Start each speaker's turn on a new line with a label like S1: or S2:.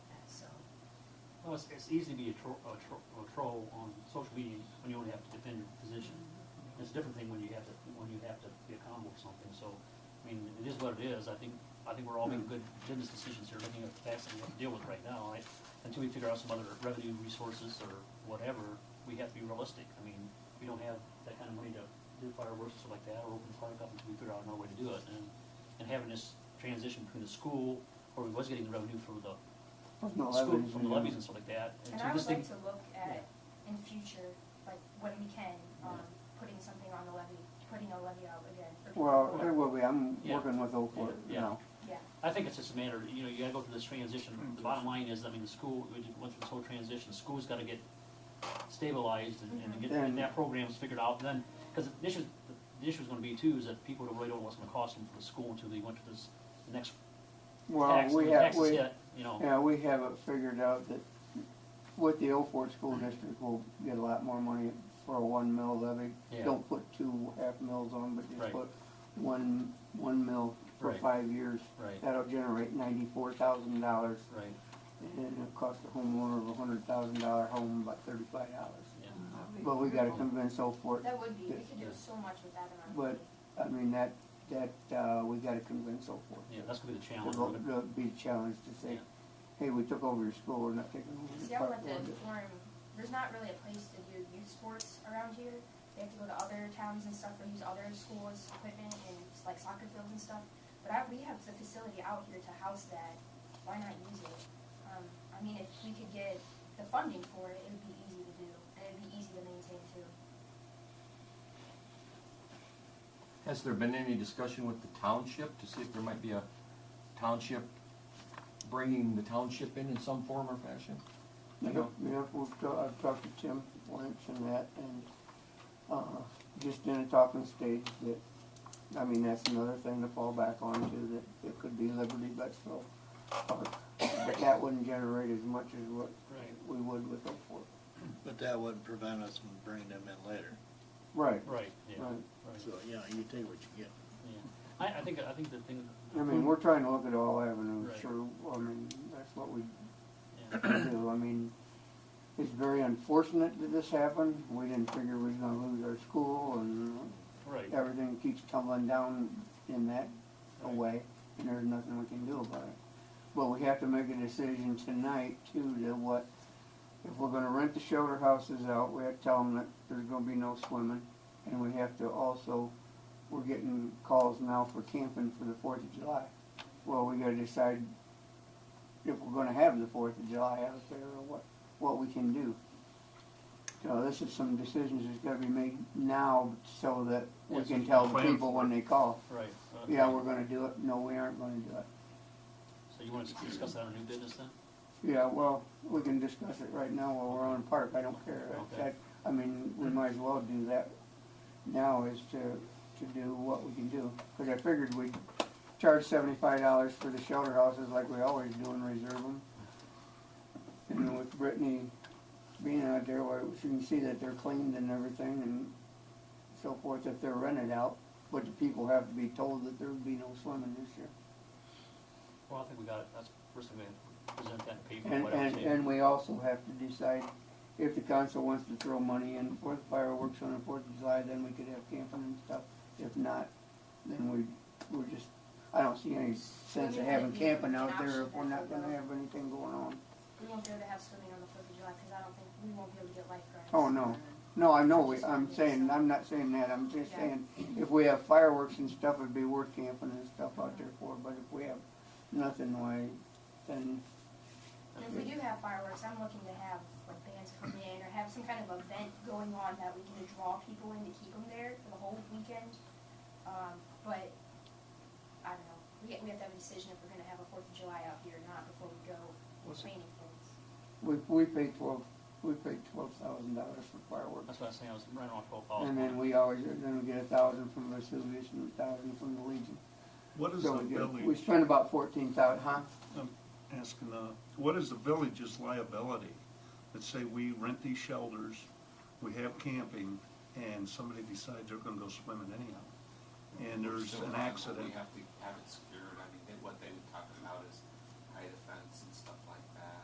S1: Plus, it's easy to be a tro- a tro- a troll on social media when you only have to defend your position. It's a different thing when you have to, when you have to be a combo or something, so, I mean, it is what it is, I think, I think we're all making good business decisions here, looking at the facts and what to deal with right now, I, until we figure out some other revenue resources or whatever, we have to be realistic, I mean, we don't have that kind of money to do fireworks or like that, or open the park up until we figure out another way to do it, and, and having this transition between the school, where we was getting revenue from the
S2: No, I
S1: school,
S2: wouldn't
S1: from the uh,
S2: do
S1: levies
S2: that.
S1: and stuff like that.
S3: And
S1: so
S3: I would
S1: just think-
S3: like to look at, in future, like, when we can, um, putting something on the levy, putting a levy out again for people.
S2: Well, there will be, I'm
S1: Yeah.
S2: working with Oakwood
S1: Yeah.
S2: now.
S3: Yeah,
S1: I think it's just a matter, you know, you gotta go through this transition.
S2: Mm.
S1: The bottom line is, I mean, the school, we just went through this whole transition, school's gotta get stabilized and, and get, get
S2: Mhm.
S1: that program's figured out, and then, cause the issue, the issue's gonna be too, is that people don't really don't know what's gonna cost them for the school until they went to this, the next
S2: Well,
S1: tax, when
S2: we
S1: the
S2: have,
S1: taxes
S2: we,
S1: hit, you know.
S2: yeah, we have it figured out that with the Oakwood School District, we'll get a lot more money for a one mil levy.
S1: Yeah.
S2: Don't put two half mils on, but
S1: Right.
S2: just put one, one mil for
S1: Right.
S2: five years.
S1: Right,
S2: That'll generate ninety-four thousand dollars,
S1: right,
S2: and it'll cost the homeowner of a hundred thousand dollar home about thirty-five dollars.
S1: yeah,
S2: But we gotta convince Oakwood
S3: that would be, we could do
S1: Yeah.
S3: so much with that amount. of
S2: But-
S3: money.
S2: I mean, that, that, uh, we gotta convince Oakwood.
S1: yeah, that's gonna be the challenge.
S2: It'll, it'll be a challenge to say,
S1: Yeah.
S2: hey, we took over your school, we're not taking over
S3: See,
S2: your
S3: I
S2: park.
S3: want to
S2: board."
S3: inform, there's not really a place to do youth sports around here. They have to go to other towns and stuff or use other schools' equipment and like soccer fields and stuff. But I, we have the facility out here to house that. Why not use it? Um, I mean, if we could get the funding for it, it would be easy to do and it'd be easy to maintain too.
S4: Has there been any discussion with the township to see if there might be a township, bringing the township in in some form or fashion?
S2: Yep, yep, we've, ta- I've talked to Tim Lynch and that, and, uh, just in a talking stage that, I mean, that's another thing to fall back on too, that it could be Liberty Betsville Park. But that wouldn't generate as much as what
S1: Right,
S2: we would with Oakwood.
S5: But that wouldn't prevent us from bringing them in later.
S2: Right,
S1: right, yeah,
S2: right.
S1: right,
S5: So, you know, you take what you get.
S1: yeah. I, I think, I think the thing,
S2: I mean, we're trying to look at all avenues,
S1: Hmm. Right.
S2: sure, I mean, that's what we
S1: yeah,
S2: do. I mean, it's very unfortunate that this happened. We didn't figure we was gonna lose our school and
S1: right, right,
S2: everything keeps tumbling down in that way and there's nothing we can do about it. But we have to make a decision tonight too to what, if we're gonna rent the shelter houses out, we have to tell them that there's gonna be no swimming. And we have to also, we're getting calls now for camping for the Fourth of July. Well, we gotta decide if we're gonna have the Fourth of July out there or what, what we can do. So this is some decisions that's gotta be made now so that we
S1: Yes,
S2: can tell the
S1: plan
S2: people
S1: for
S2: when they call,
S1: right. okay.
S2: yeah, we're gonna do it, no, we aren't gonna do it.
S1: So you wanna discuss that on new business then?
S2: Yeah, well, we can discuss it right now while we're on the park, I don't care. That-
S1: Okay.
S2: that- I mean, we might as well do that now is to, to do what we can do. Cause I figured we'd charge seventy-five dollars for the shelter houses like we always do and reserve them. And then with Brittany being out there, where she can see that they're cleaned and everything and so forth, if they're rented out. But the people have to be told that there would be no swimming this year.
S1: Well, I think we got it, that's first thing we have, present that in paper,
S2: And,
S1: whatever.
S2: and, and we also have to decide if the council wants to throw money in for the fireworks on the Fourth of July, then we could have camping and stuff. If not, then we, we're just, I don't see any sense of having camping out there if we're not gonna have anything going on.
S3: We won't be able to have swimming on the Fourth of July because I don't think we won't be able to get lifeguards.
S2: Oh, no. No, I know, we- I'm saying, I'm not saying that, I'm just saying, if we have fireworks and stuff, it'd be worth camping and stuff out there for, but if we have nothing, why, then,
S3: And if we do have fireworks, I'm looking to have like bands come in or have some kind of event going on that we can draw people in to keep them there for the whole weekend. Um, but I don't know. We, we have to have a decision if we're going to have a Fourth of July out here or not before we go
S4: Was it-
S3: planning things.
S2: we, we pay twelve, we pay twelve thousand dollars for fireworks.
S1: That's what I was saying, I was running off twelve
S2: And then
S1: thousand.
S2: we always, then we get a thousand from Vesuvius and a thousand from the Legion.
S6: What is
S2: So
S6: the
S2: we get- We
S6: village,
S2: spend about fourteen thousand, huh?
S6: I'm asking, uh, what is the village's liability? Let's say we rent these shelters, we have camping, and somebody decides they're gonna go swimming anyhow. And there's an accident,
S7: We have to have it